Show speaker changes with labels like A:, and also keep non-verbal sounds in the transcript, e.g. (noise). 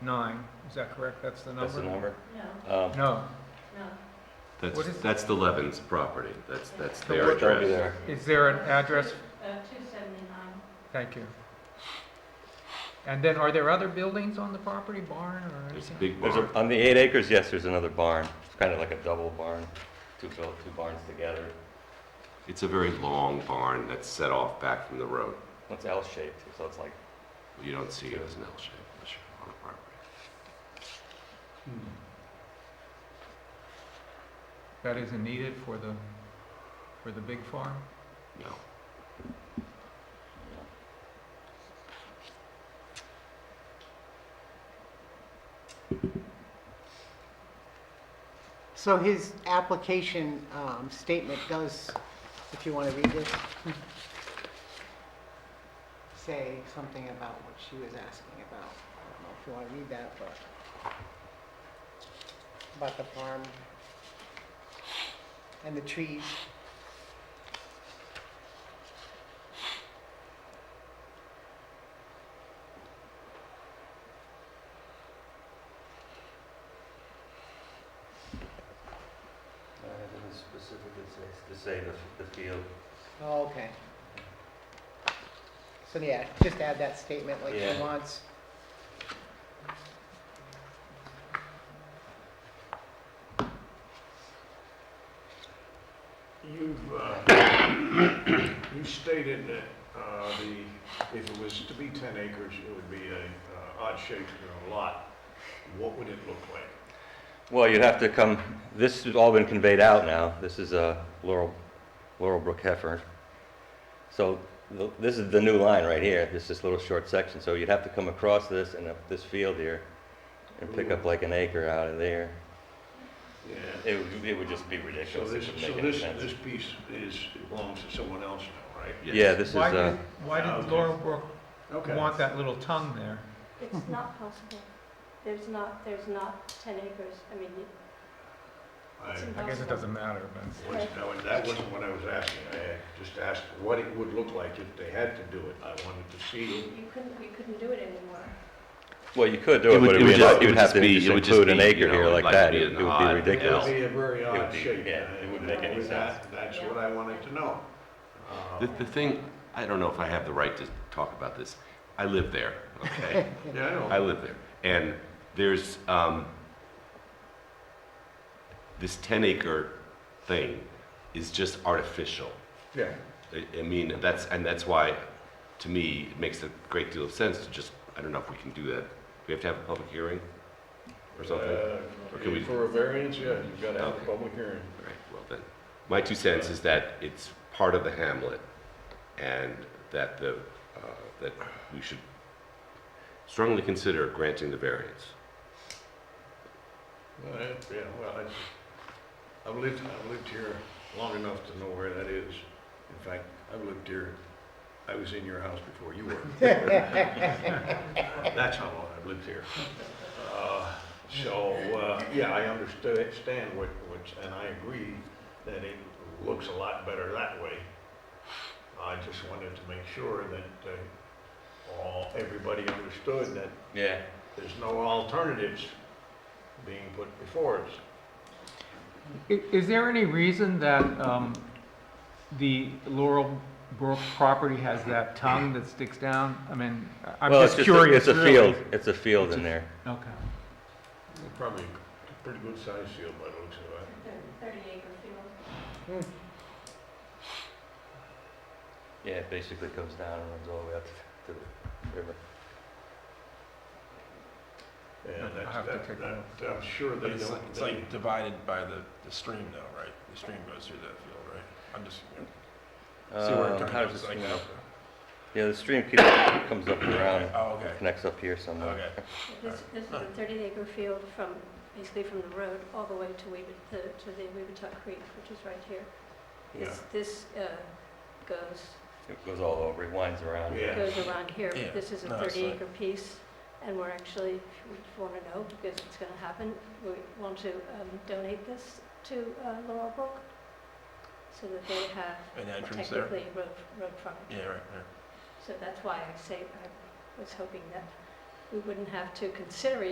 A: 189, is that correct? That's the number?
B: That's the number?
C: No,
B: Um,
A: No,
C: no.
D: That's,
A: What is-
D: that's the Levens property. That's, that's
A: So
D: their
A: what-
B: They'll be
D: address.
B: there.
A: is there an address?
C: Uh, 279.
A: Thank you. And then are there other buildings on the property, barn or
D: There's a
A: anything?
D: big
B: There's
D: barn.
B: a, on the eight acres, yes, there's another barn. It's kind of like a double barn, two built, two barns together.
D: It's a very long barn that's set off back from the road.
B: It's L-shaped, so it's like,
D: You don't see it as an L shape unless you're on a property.
A: Hmm. That isn't needed for the, for the big farm?
D: No.
E: So his application um, statement does, if you want to read this, say something about what she was asking about. I don't know if you want to read that, but about the farm and the trees.
B: uh, it doesn't specifically say, to say the, the field.
E: Oh, okay. So yeah, just add that statement like
B: Yeah.
E: he wants.
F: You've, uh, (coughs) you stated that, uh, the, if it was to be ten acres, it would be a, uh, odd shape or a lot. What would it look like?
B: Well, you'd have to come, this has all been conveyed out now. This is uh, Laurel, Laurel Brook Heifer. So th- this is the new line right here, this this little short section. So you'd have to come across this and up this field here and pick up like an acre out of there.
F: Yeah.
B: It would, it would just be
F: So
B: ridiculous.
F: this,
B: It would
F: so
B: make any
F: this,
B: sense.
F: this piece is, belongs to someone else now, right?
D: Yes.
B: Yeah, this is,
A: Why
B: uh,
A: did, why did
F: Okay.
A: Laurel Brook want that little tongue there?
C: It's not possible. There's not, there's not 10 acres. I mean, it-
F: I,
C: it's impossible.
A: I guess it doesn't matter, but
F: was- no, that wasn't what I was asking. I had just asked what it would look like if they had to do it. I wanted to see.
C: You couldn't, you couldn't do it anymore.
B: well, you could do it, but it would,
D: just-
B: not- you'd have
D: just
B: to
D: be- it
B: just
D: would just
B: include an
D: be, you
B: acre
D: know,
B: here
D: it'd
B: like
D: like
B: that.
D: be
B: It
D: an
B: it would
D: odd-
B: be ridiculous.
F: It would be a very
B: would
F: odd
B: be-
F: shape.
B: yeah, it wouldn't make any
F: That- That's what I wanted to know. Uh,
D: The, the thing, I don't know if I have the right to talk about this. I live there, okay?
B: (laughs)
F: Yeah, I know.
D: I live there. And there's, um, this ten acre thing is just artificial.
F: Yeah,
D: I, I mean, that's, and that's why, to me, it makes a great deal of sense to just, I don't know if we can do that. Do we have to have a public hearing or something? All
F: Uh,
D: Or can we-
F: For a variance, yeah, you've got to have a
D: Okay.
F: public hearing.
D: right, well then, my two cents is that it's part of the hamlet and that the, uh, that we should strongly consider granting the variance.
F: All right, Yeah, well, I, I've lived, I've lived here long enough to know where that is. In fact, I've lived here, I was in your house before you were. That's how long I've lived here. Uh, So, uh, yeah, I understand what, what's, and I agree that it looks a lot better that way. I just wanted to make sure that, uh, all, everybody understood that
B: Yeah.
F: there's no alternatives being put before us.
A: I- Is there any reason that um, the Laurel Brook property has that tongue that sticks down? I mean, I- I'm
B: Well, it's
A: just
B: just, a-
A: curious.
B: it's a
A: really.
B: field, it's a field in there.
A: Okay.
F: Probably a pretty good sized field by the looks of it.
C: Thir- 30 acre field.
B: Yeah, it basically comes down and runs all the way up to the river.
F: Yeah,
A: I'll have
F: that's,
A: to take
F: that,
A: a look.
F: that, I'm sure they
G: But it's,
F: don't.
G: it's
F: they-
G: like divided by the, the stream though, right? The stream goes through that field, right? I'm just, you know, see where it
B: Um, how
G: comes,
B: does this
G: like,
B: come
G: now.
B: up? Yeah, the stream keeps, comes up and around,
G: Oh, okay,
B: connects up here somewhere.
G: okay.
C: This, this is a 30 acre field from, basically from the road all the way to Weebit, to the Weebituck Creek, which is right here.
F: Yeah,
C: This, this uh, goes
B: It goes all over, it winds around.
F: Yeah.
C: goes around here,
G: Yeah.
C: but this is a
G: No, it's
C: 30
G: like-
C: acre piece, and we're actually, if you want to know, because it's going to happen, we want to um, donate this to uh, Laurel Brook, so that they have
G: An entrance there?
C: technically road road frontage.
G: Yeah, right, right.
C: So that's why I say, I was hoping that we wouldn't have to consider